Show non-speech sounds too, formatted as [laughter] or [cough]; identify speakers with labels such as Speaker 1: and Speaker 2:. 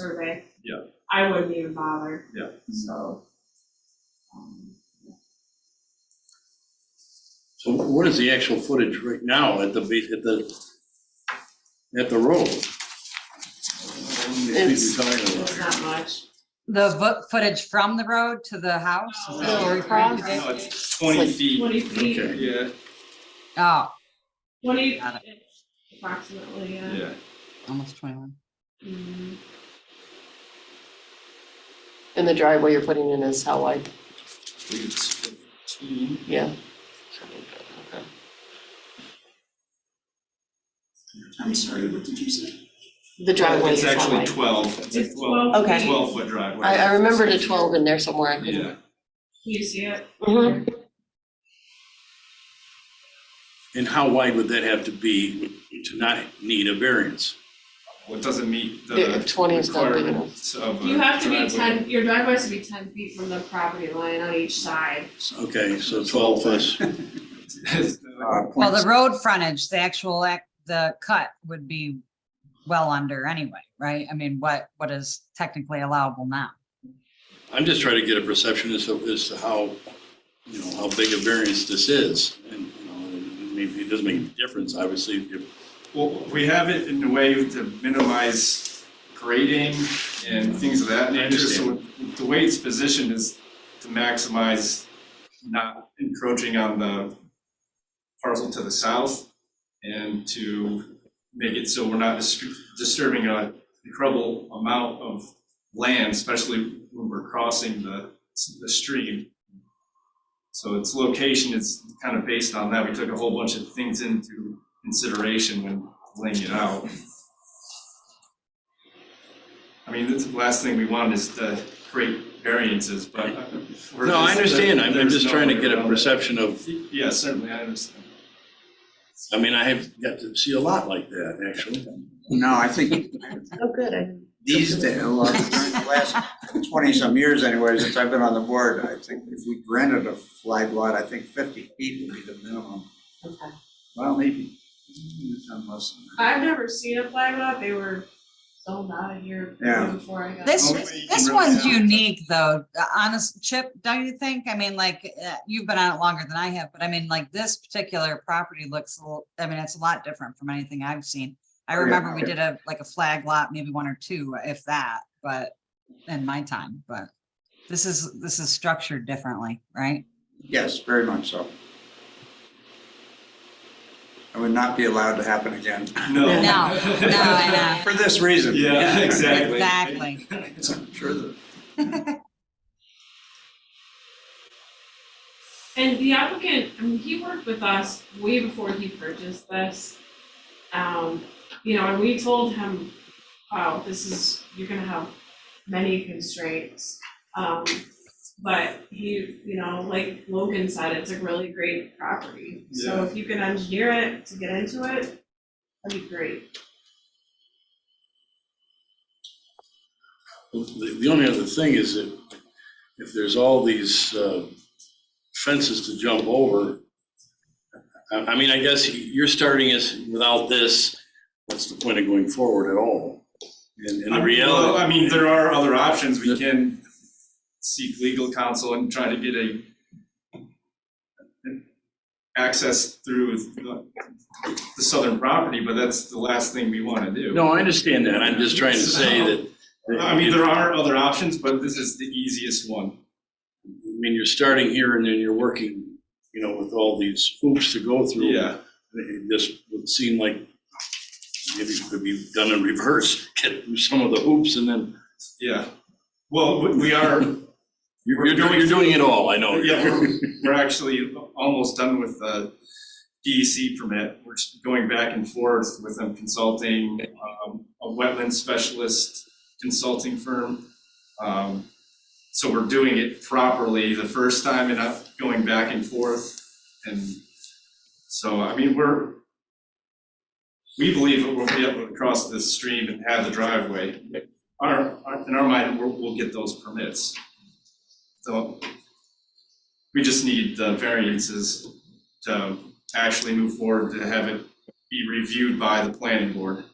Speaker 1: survey.
Speaker 2: Yeah.
Speaker 1: I wouldn't even bother.
Speaker 2: Yeah.
Speaker 1: So. um,
Speaker 3: So what is the actual footage right now at the, be- at the, at the road?
Speaker 4: It's-
Speaker 3: What are we talking about
Speaker 1: It's
Speaker 3: here?
Speaker 1: not much.
Speaker 5: The vo- footage from the road to the house? Is that what you're referring to?
Speaker 2: No, it's twenty
Speaker 4: Like-
Speaker 2: feet,
Speaker 1: Twenty feet,
Speaker 3: Okay.
Speaker 2: yeah,
Speaker 5: Oh,
Speaker 1: twenty,
Speaker 5: Got
Speaker 1: approximately, yeah.
Speaker 2: yeah.
Speaker 5: almost 21.
Speaker 1: Mm,
Speaker 4: And the driveway you're putting in is how wide?
Speaker 2: Believe it's fifteen.
Speaker 4: Yeah.
Speaker 2: I'm sorry, what did you say?
Speaker 4: The driveway is
Speaker 2: It's
Speaker 4: how
Speaker 2: actually
Speaker 4: wide?
Speaker 2: twelve, it's a
Speaker 1: It's
Speaker 2: twelve,
Speaker 1: 12
Speaker 4: Okay.
Speaker 2: twelve foot driveway.
Speaker 4: I, I remembered a twelve in there somewhere. I couldn't-
Speaker 2: Yeah,
Speaker 1: Can you see it?
Speaker 4: Mhm.
Speaker 3: And how wide would that have to be to not need a variance?
Speaker 2: well, it doesn't meet
Speaker 4: Yeah,
Speaker 2: the
Speaker 4: if 20 is not big enough.
Speaker 2: requirements of a
Speaker 1: You have to be
Speaker 2: driveway.
Speaker 1: ten, your driveway has to be ten feet from the property line on each side.
Speaker 3: Okay, so 12 plus,
Speaker 2: [laughs] It's
Speaker 3: uh,
Speaker 5: Well, the road frontage, the actual, act, the cut would be well under anyway, right? I mean, what, what is technically allowable now?
Speaker 3: I'm just trying to get a perception as to, as to how, you know, how big a variance this is. And, you know, I mean, it doesn't make a difference, obviously, if
Speaker 2: Well, we have it in a way to minimize grading and things of that nature, so the way it's positioned is to maximize not encroaching on the parcel to the south and to make it so we're not dis- disturbing a incredible amount of land, especially when we're crossing the, the stream. So its location is kind of based on that. We took a whole bunch of things into consideration when laying it out. I mean, that's the last thing we want is to create variances, but. uh, we're
Speaker 3: No, I
Speaker 2: just-
Speaker 3: understand, I'm, I'm
Speaker 2: there's
Speaker 3: just
Speaker 2: no
Speaker 3: trying to
Speaker 2: way
Speaker 3: get a
Speaker 2: around it.
Speaker 3: perception of,
Speaker 2: Yeah, certainly, I understand.
Speaker 3: I mean, I have got to see a lot like that, actually.
Speaker 6: No, I think
Speaker 4: Oh, good. I-
Speaker 6: these days, well, during the last twenty-some years anyway, since I've been on the board, I think if we granted a flag lot, I think fifty feet would be the minimum.
Speaker 4: Okay.
Speaker 6: Well, maybe, it's not less than that.
Speaker 1: I've never seen a flag lot. They were sold out of here
Speaker 6: Yeah.
Speaker 1: before I got.
Speaker 5: This,
Speaker 2: Only you can
Speaker 5: this
Speaker 2: really
Speaker 5: one's
Speaker 2: have it.
Speaker 5: unique though, Uh, honest, Chip, don't you think? I mean, like, uh, you've been on it longer than I have, but I mean, like, this particular property looks, a little. I mean, it's a lot different from anything I've seen. I
Speaker 6: Oh, yeah,
Speaker 5: remember we
Speaker 6: yeah.
Speaker 5: did a, like a flag lot, maybe one or two, if that, but in my time, but this is, this is structured differently, right?
Speaker 6: Yes, very much so. It would not be allowed to happen again,
Speaker 2: No.
Speaker 4: No,
Speaker 5: No, I know.
Speaker 6: [laughs] for this reason.
Speaker 2: [laughs]
Speaker 6: [laughs]
Speaker 2: Yeah, [laughs] exactly.
Speaker 5: Exactly.
Speaker 2: [laughs]
Speaker 6: I'm sure that.
Speaker 1: And the applicant, I mean, he worked with us way before he purchased this. Um, you know, and we told him, wow, this is, you're gonna have many constraints. Um, but he, you know, like Logan said, it's a really great property. So
Speaker 2: Yeah.
Speaker 1: if you can engineer it to get into it, that'd be great.
Speaker 3: The, the only other thing is that if there's all these uh, fences to jump over, I, I mean, I guess you're starting us without this, what's the point of going forward at all? And, and the
Speaker 2: Well,
Speaker 3: reality.
Speaker 2: I mean, there are other options. We can seek legal counsel and try to get a access through the the southern property, but that's the last thing we want to do.
Speaker 3: No, I understand that, I'm just trying to say that.
Speaker 2: I mean, there are other options, but this is the easiest one.
Speaker 3: I mean, you're starting here and then you're working, you know, with all these hoops to go through.
Speaker 2: Yeah,
Speaker 3: It just would seem like maybe it could be done in reverse, [laughs] get through some of the hoops and then
Speaker 2: yeah. Well, we- we are,
Speaker 3: You're, you're doing, you're doing it all, I know.
Speaker 2: yeah, we're, we're actually almost done with the DEC permit. We're just going back and forth with them consulting, um, a wetland specialist consulting firm. Um, so we're doing it properly the first time and not going back and forth. And so, I mean, we're, we believe that we'll be able to cross this stream and have the driveway. Our, our- in our mind, we'll, we'll get those permits. So we just need um, the variances to actually move forward, to have it be reviewed by the planning board.